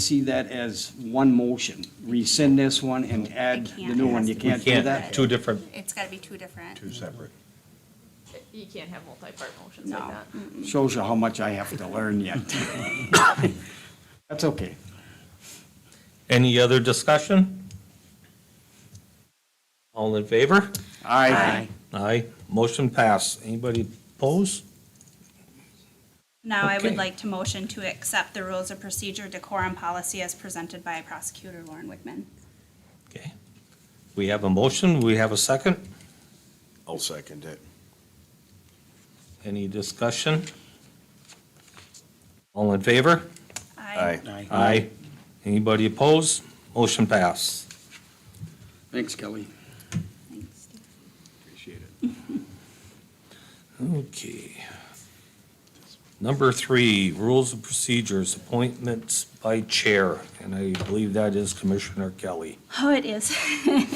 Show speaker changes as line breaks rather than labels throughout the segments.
see that as one motion, rescind this one and add the new one, you can't do that?
Two different,
It's gotta be two different.
two separate.
You can't have multi-part motions
No.
like that.
Shows you how much I have to learn yet. That's okay.
Any other discussion? All in favor?
Aye.
Aye. Motion passed. Anybody oppose?
Now I
Okay.
would like to motion to accept the rules of procedure, decorum policy as presented by prosecutor Lauren Wickman.
Okay. We have a motion. We have a second.
I'll second it.
Any discussion? All in favor?
I
Aye. Anybody oppose? Motion passed.
Thanks, Kelly.
Thanks, Steve.
Appreciate it.
Okay. Number three, rules of procedures, appointments by chair, and I believe that is Commissioner Kelly.
Oh, it is.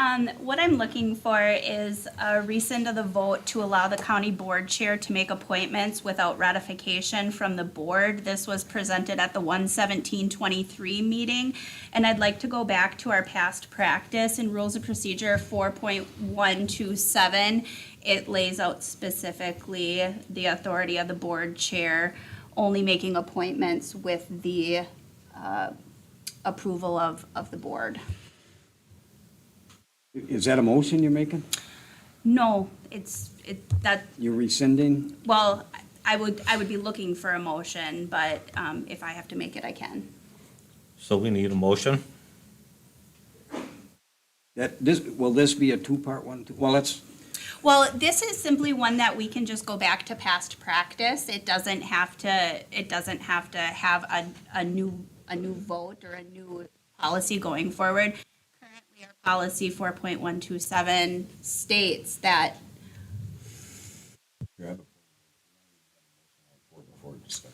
Um, what I'm looking for is a rescind of the vote to allow the county board chair to make appointments without ratification from the board. This was presented at the one seventeen twenty-three meeting. And I'd like to go back to our past practice in Rules of Procedure four point one two seven. It lays out specifically the authority of the board chair, only making appointments with the approval of, of the board.
Is that a motion you're making?
No, it's, it, that,
You're rescinding?
well, I would, I would be looking for a motion, but um, if I have to make it, I can.
So we need a motion.
That, this, will this be a two-part one? too? Well, that's,
Well, this is simply one that we can just go back to past practice. It doesn't have to, it doesn't have to have a, a new, a new vote or a new policy going forward. Currently, our Policy four point one two seven states that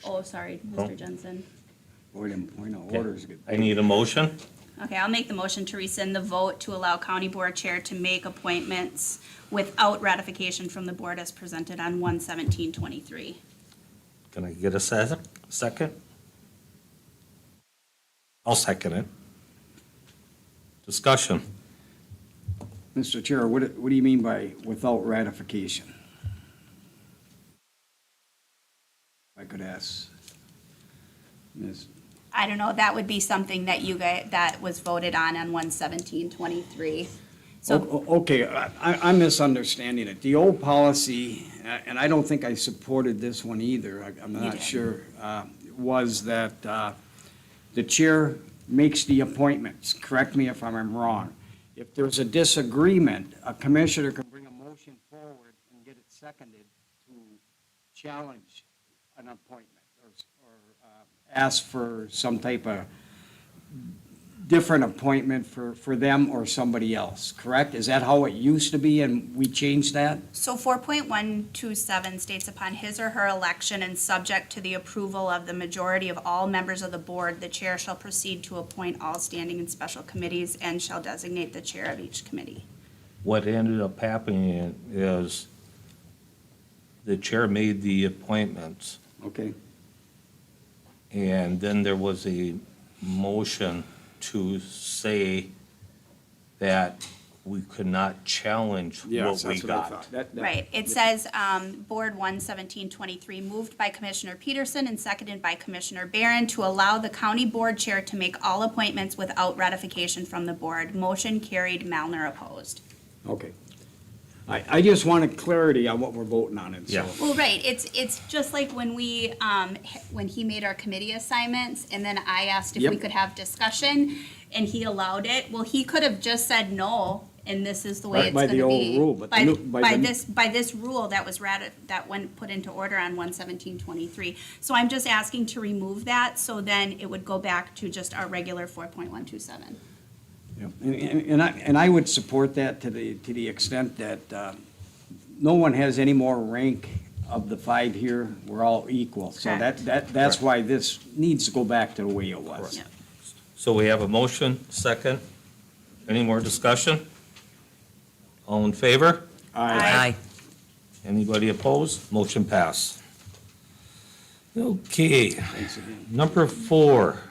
Oh, sorry,
Oh.
Mr. Jensen.
boy, them point of orders get.
I need a motion.
Okay, I'll make the motion to rescind the vote to allow county board chair to make appointments without ratification from the board as presented on one seventeen twenty-three.
Can I get a se- second? I'll second it. Discussion.
Mr. Chair, what, what do you mean by without ratification? If I could ask. Ms.
I don't know, that would be something that you guys, that was voted on on one seventeen twenty-three. So,
O- o- Okay, I, I- I'm misunderstanding it. The old policy, a- and I don't think I supported this one either, I- I'm not
did.
sure, uh, was that uh, the chair makes the appointments, correct me if I'm wrong. If there's a disagreement, a commissioner can bring a motion forward and get it seconded to challenge an appointment or, s- or uh, ask for some type of different appointment for, for them or somebody else, correct? Is that how it used to be and we changed that?
so four point one two seven states upon his or her election and subject to the approval of the majority of all members of the board, the chair shall proceed to appoint all standing and special committees and shall designate the chair of each committee.
What ended up happening is the chair made the appointments,
Okay,
and then there was a motion to say that we could not challenge what we got.
Right, it says, um, Board one seventeen twenty-three, moved by Commissioner Peterson and seconded by Commissioner Barron to allow the county board chair to make all appointments without ratification from the board. Motion carried, Malner opposed.
Okay. I, I just wanted clarity on what we're voting on and so.
Yeah.
Well, right, it's, it's just like when we, um, h- when he made our committee assignments, and then I asked if we
Yep.
could have discussion, and he allowed it. Well, he could have just said no, and this is the
Right,
way it's
by
gonna
the old
be.
rule, but the
By-
new- by
By
the-
this, by this rule that was rati, that went, put into order on one seventeen twenty-three. So I'm just asking to remove that, so then it would go back to just our regular four point one two seven.
Yep. And, and and I, and I would support that to the, to the extent that, uh, no one has any more rank of the five here. We're all equal. So that,
Correct.
that, that's
Correct.
why this needs to go back to the way it was.
So we have a motion, second. Any more discussion? All in favor?
All right.
Anybody opposed? Motion pass. Okay, number four.